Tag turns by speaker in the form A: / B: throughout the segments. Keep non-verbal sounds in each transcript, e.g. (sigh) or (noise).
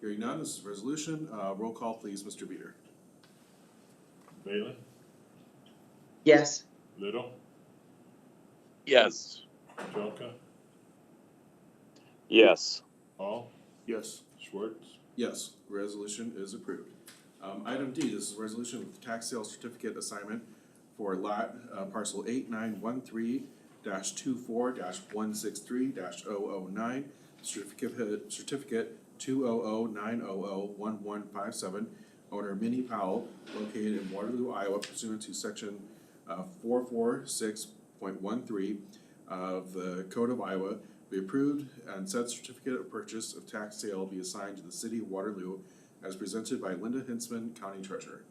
A: Hearing none, this is a resolution. Uh, roll call, please, Mr. Beater.
B: Bailey?
C: yes,
B: Little?
D: Yes.
B: Jelka?
D: Yes.
B: Hall?
A: Yes.
B: Schwartz?
A: Yes, resolution is approved. Um, item D, this is a resolution with tax sale certificate assignment for lot, uh, parcel eight nine one three dash two four dash one six three dash oh oh nine, certificate, certificate two oh oh nine oh oh one one five seven, owner Minnie Powell, located in Waterloo, Iowa pursuant to section, uh, four four six point one three of the Code of Iowa be approved and said certificate of purchase of tax sale be assigned to the city of Waterloo as presented by Linda Hinsman, County Treasurer.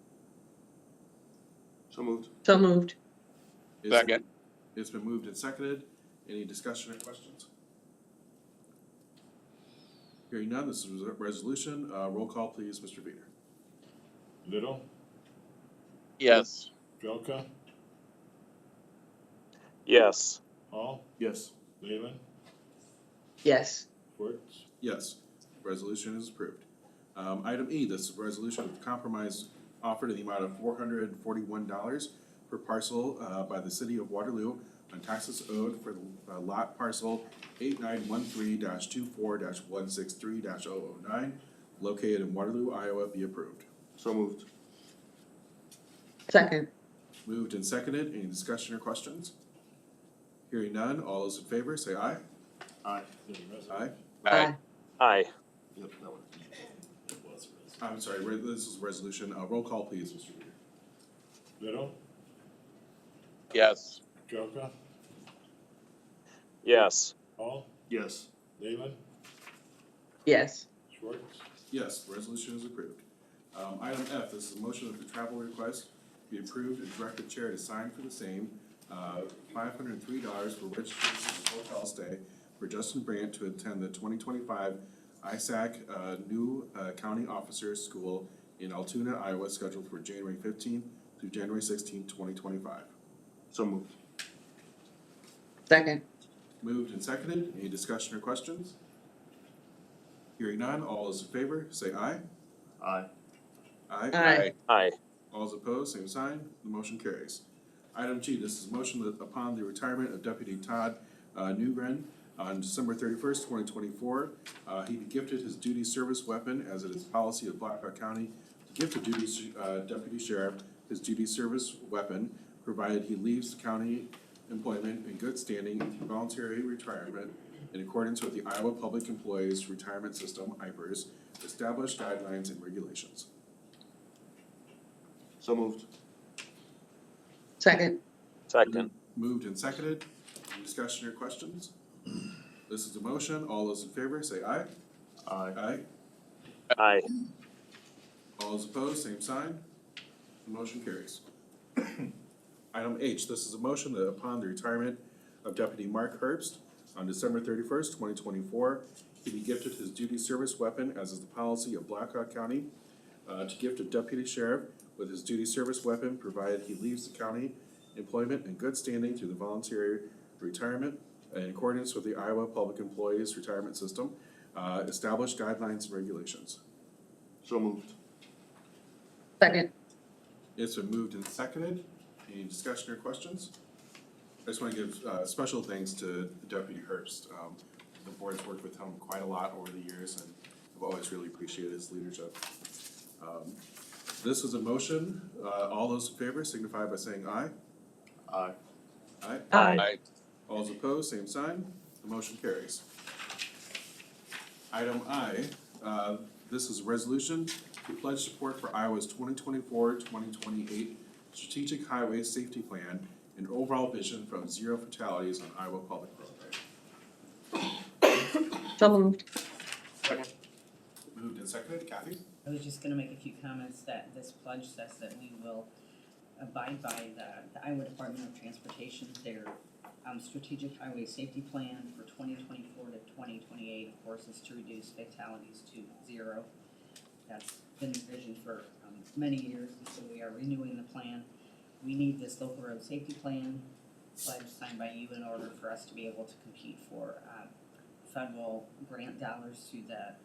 E: So moved.
C: so moved,
A: It's-
D: Second.
A: It's been moved and seconded. Any discussion or questions? Hearing none, this is a resolution. Uh, roll call please, Mr. Veder.
B: Little?
D: Yes.
B: Jelka?
D: Yes.
B: Hall?
A: Yes.
B: Leyland?
C: yes,
B: Schwartz?
A: Yes, resolution is approved. Um, item E, this is a resolution of compromise offered in the amount of four hundred and forty-one dollars per parcel, uh, by the city of Waterloo on taxes owed for uh, lot parcel eight nine one three 24 one six three 9 located in Waterloo, Iowa, be approved.
E: So moved.
C: second,
A: Moved and seconded, any discussion or questions? Hearing none, all those in favor, say aye.
E: Aye.
A: Aye.
C: aye,
D: Aye.
E: Yep, that one.
A: I'm sorry, re- this is resolution, uh, roll call please, Mr. Reader.
B: Little?
D: Yes.
B: Jelka?
D: Yes.
B: Hall?
E: Yes.
B: Leyland?
C: yes,
B: Schwartz?
A: Yes, resolution is approved. Um, item F, this is a motion that the travel request be approved and direct the chair to sign for the same. Uh, five hundred and three dollars for registration and hotel stay for Justin Brandt to attend the twenty twenty-five ISAC, uh, new, uh, county officers school in Altoona, Iowa, scheduled for January fifteenth through January sixteenth, twenty twenty-five.
E: So moved.
C: second,
A: Moved and seconded, any discussion or questions? Hearing none, all those in favor, say aye.
E: Aye.
A: Aye.
C: Aye.
D: Aye.
A: All is opposed, same sign, the motion carries. Item G, this is motion that upon the retirement of Deputy Todd uh, Newgren on December thirty-first, twenty twenty-four, uh, he be gifted his duty service weapon as it is policy of Blackhawk County to gift a duty, s- uh, deputy sheriff his duty service weapon, provided he leaves county employment in good standing and through voluntary retirement in accordance with the Iowa Public Employees Retirement System, IPERS, established guidelines and regulations.
E: So moved.
C: second,
D: Second.
A: Moved and seconded. Any Discussion or questions? This is a motion. All those in favor say aye.
E: Aye.
A: Aye.
D: Aye.
A: All those opposed, same sign. The motion carries. (coughs) Item H, this is a motion that upon the retirement of Deputy Mark Herbst on December thirty-first, twenty twenty-four, he be gifted his duty service weapon as is the policy of Blackhawk County uh, to gift a deputy sheriff with his duty service weapon provided he leaves the county employment in good standing through the voluntary retirement in accordance with the Iowa Public Employees Retirement System, uh, established guidelines and regulations.
E: So moved.
C: second,
A: It's been moved and seconded. Any discussion or questions? I just want to give uh, special thanks to Deputy Herbst. Um, The board's worked with him quite a lot over the years, and I've always really appreciated his leadership. Um, This is a motion. Uh, All those in favor signify by saying aye.
E: Aye.
A: Aye.
C: aye,
A: All those opposed, same sign. The motion carries. Item I, uh, this is a resolution to pledge support for Iowa's 2024-2028 Strategic Highway Safety Plan and overall vision from zero fatalities on Iowa public roadways.
C: so moved,
A: Moved and seconded, Kathy?
F: I was just gonna make a few comments that this pledge says that we will abide by the, the Iowa Department of Transportation, their, um, strategic highway safety plan for twenty twenty-four to twenty twenty-eight, of course, is to reduce fatalities to zero. That's been envisioned for, um, many years, and so we are renewing the plan. We need this local road safety plan pledge signed by you in order for us to be able to compete for, um, federal grant uh, dollars through the